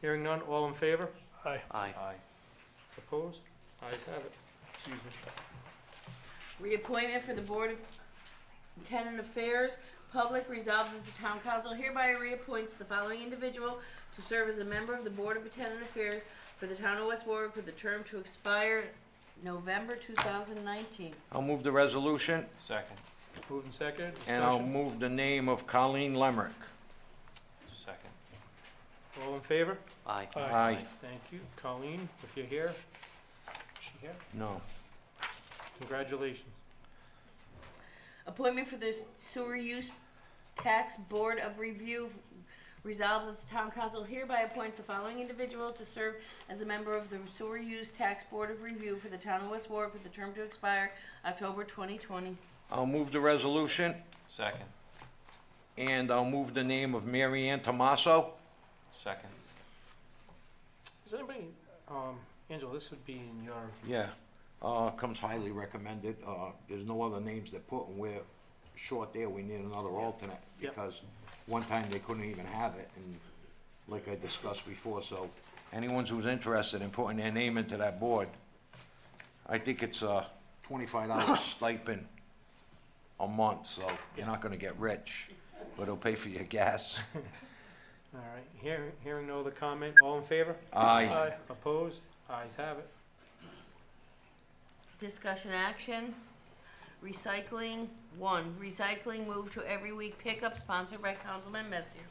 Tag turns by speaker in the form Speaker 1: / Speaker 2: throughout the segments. Speaker 1: Hearing none, all in favor?
Speaker 2: Aye.
Speaker 3: Aye.
Speaker 1: Opposed? Ayes have it. Excuse me.
Speaker 4: Reappointment for the Board of Tenant Affairs, Public resolved as the Town Council hereby reappoints the following individual to serve as a member of the Board of Tenant Affairs for the Town of West Warwick with a term to expire November two thousand nineteen.
Speaker 3: I'll move the resolution,
Speaker 2: Second.
Speaker 1: Moved and seconded,
Speaker 3: and I'll
Speaker 1: discussion.
Speaker 3: move the name of Colleen Lemrick.
Speaker 2: Second.
Speaker 1: All in favor?
Speaker 5: Aye.
Speaker 3: Aye.
Speaker 1: Thank you. Colleen, if you're here, is she here?
Speaker 3: No.
Speaker 1: Congratulations.
Speaker 4: Appointment for the Sewer Use Tax Board of Review, resolved that the Town Council hereby appoints the following individual to serve as a member of the Sewer Use Tax Board of Review for the Town of West Warwick with a term to expire October twenty twenty.
Speaker 3: I'll move the resolution,
Speaker 2: Second.
Speaker 3: and I'll move the name of Mary Ann Tomaso.
Speaker 2: Second.
Speaker 1: Is anybody, um, Angela, this would be in your,
Speaker 3: Yeah, uh, comes highly recommended, uh, there's no other names they're putting, we're short there, we need another alternate,
Speaker 1: Yep.
Speaker 3: because one time they couldn't even have it, and like I discussed before, so anyone who's interested in putting their name into that board, I think it's a twenty-five dollar stipend a month, so you're not gonna get rich, but it'll pay for your gas.
Speaker 1: all right, hearing, hearing no other comment, all in favor? Uh,
Speaker 3: Aye.
Speaker 6: Uh,
Speaker 1: Opposed? Ayes have it.
Speaker 4: Discussion action, recycling, one, recycling move to every week pickup sponsored by Councilman Messier.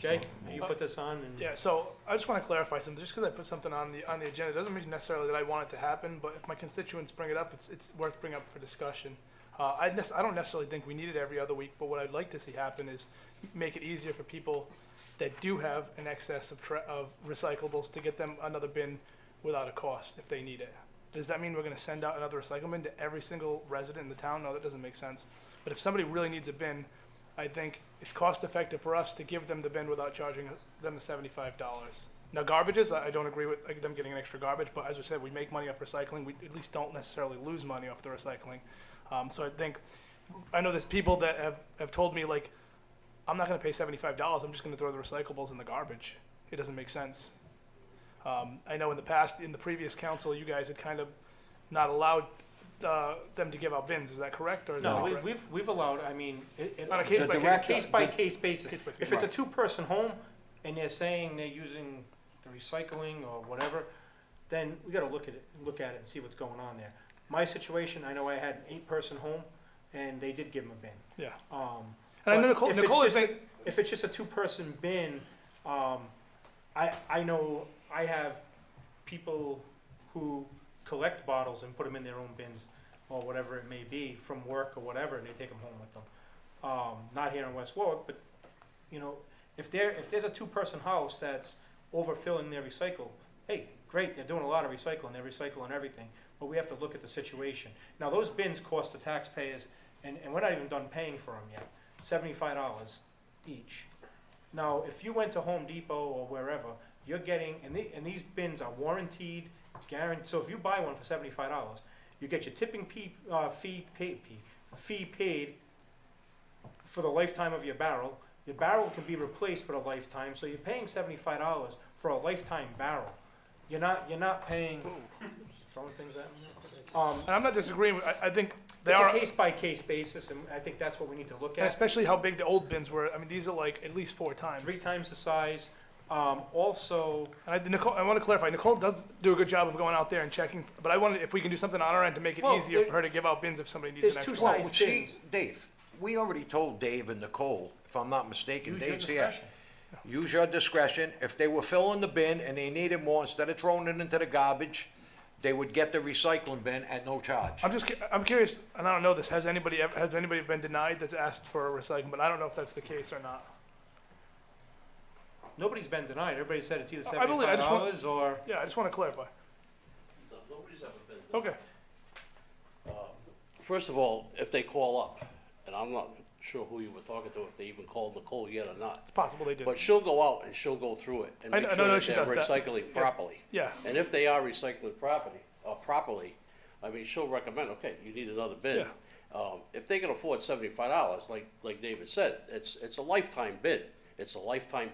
Speaker 1: Jay, you put this on and?
Speaker 6: Yeah, so I just want to clarify something. Just because I put something on the on the agenda doesn't mean necessarily that I want it to happen. But if my constituents bring it up, it's it's worth bringing up for discussion. Uh, I nec- I don't necessarily think we need it every other week, but what I'd like to see happen is make it easier for people that do have an excess of tra- of recyclables to get them another bin without a cost if they need it. Does that mean we're going to send out another recycle bin to every single resident in the town? No, that doesn't make sense. But if somebody really needs a bin, I think it's cost effective for us to give them the bin without charging them the seventy-five dollars. Now, garbages, I I don't agree with like, them getting an extra garbage, but as we said, we make money off recycling. We at least don't necessarily lose money off the recycling. Um, so I think, I know there's people that have, have told me like, I'm not going to pay seventy-five dollars. I'm just going to throw the recyclables in the garbage. It doesn't make sense. Um, I know in the past, in the previous council, you guys had kind of not allowed uh, them to give out bins. Is that correct? Or is that
Speaker 1: No,
Speaker 6: not
Speaker 1: we,
Speaker 6: correct?
Speaker 1: we've, we've allowed, I mean, it, it-
Speaker 6: On a
Speaker 1: it's a
Speaker 6: case-by-case-
Speaker 1: case-by-case basis.
Speaker 6: Case-by-case,
Speaker 1: If it's a
Speaker 3: right.
Speaker 1: two-person home and they're saying they're using the recycling or whatever, then we gotta look at it, look at it and see what's going on there. My situation, I know I had an eight-person home and they did give them a bin.
Speaker 6: yeah.
Speaker 1: Um,
Speaker 6: And I know
Speaker 1: But
Speaker 6: Nicole,
Speaker 1: if it's
Speaker 6: Nicole is
Speaker 1: just
Speaker 6: saying,
Speaker 1: if it's just a two-person bin, um, I, I know, I have people who collect bottles and put them in their own bins or whatever it may be from work or whatever, and they take them home with them. Um, not here in West Warwick, but, you know, if there, if there's a two-person house that's overfilling their recycle, hey, great, they're doing a lot of recycling, they're recycling everything, but we have to look at the situation. Now, those bins cost the taxpayers, and, and we're not even done paying for them yet, seventy-five dollars each. Now, if you went to Home Depot or wherever, you're getting, and, the, and these bins are warranted, guaranteed. So if you buy one for seventy-five dollars, you get your tipping fee, uh, fee paid, fee paid for the lifetime of your barrel. Your barrel can be replaced for the lifetime, so you're paying seventy-five dollars for a lifetime barrel. You're not, you're not paying. Throwing things at me. Um,
Speaker 6: and I'm not disagreeing. with- I, I think they
Speaker 1: it's
Speaker 6: are,
Speaker 1: a case-by-case basis, and I think that's what we need to look
Speaker 6: and
Speaker 1: at.
Speaker 6: especially how big the old bins were. I mean, these are like at least four times.
Speaker 1: Three times the size. Um, also.
Speaker 6: And I, Nicole, I want to clarify. Nicole does do a good job of going out there and checking, but I wanted if we can do something on our end to make it
Speaker 3: Well,
Speaker 6: easier
Speaker 3: there-
Speaker 6: for her to give out bins if somebody needs
Speaker 1: there's
Speaker 6: an
Speaker 1: two
Speaker 6: extra.
Speaker 1: sides.
Speaker 6: one.
Speaker 3: Well,
Speaker 1: size
Speaker 3: she,
Speaker 1: bins.
Speaker 3: Dave, we already told Dave and Nicole, if I'm not mistaken,
Speaker 1: Use your
Speaker 3: Dave's here.
Speaker 1: discretion.
Speaker 3: Use your discretion. If they were filling the bin and they needed more, instead of throwing it into the garbage, they would get the recycling bin at no charge.
Speaker 6: I'm just cu- I'm curious, and I don't know this. Has anybody ever, has anybody been denied that's asked for a recycling? But I don't know if that's the case or not.
Speaker 1: Nobody's been denied. Everybody said it's either
Speaker 6: I believe- I
Speaker 1: seventy-five
Speaker 6: just want-
Speaker 1: dollars or
Speaker 6: Yeah, I just want to clarify.
Speaker 7: Nobody's ever been.
Speaker 6: Okay.
Speaker 7: First of all, if they call up, and I'm not sure who you were talking to, if they even called Nicole yet or not,
Speaker 6: It's possible they did.
Speaker 7: but she'll go out and she'll go through it and
Speaker 6: I
Speaker 7: make
Speaker 6: know-
Speaker 7: sure
Speaker 6: no, no,
Speaker 7: that
Speaker 6: she
Speaker 7: they're
Speaker 6: does that.
Speaker 7: recycling properly.
Speaker 6: Yeah.
Speaker 7: And if they are recycling property, uh, properly, I mean, she'll recommend, okay, you need another bin. Um, if they can afford seventy-five dollars, like, like David said, it's, it's a lifetime bid. It's a lifetime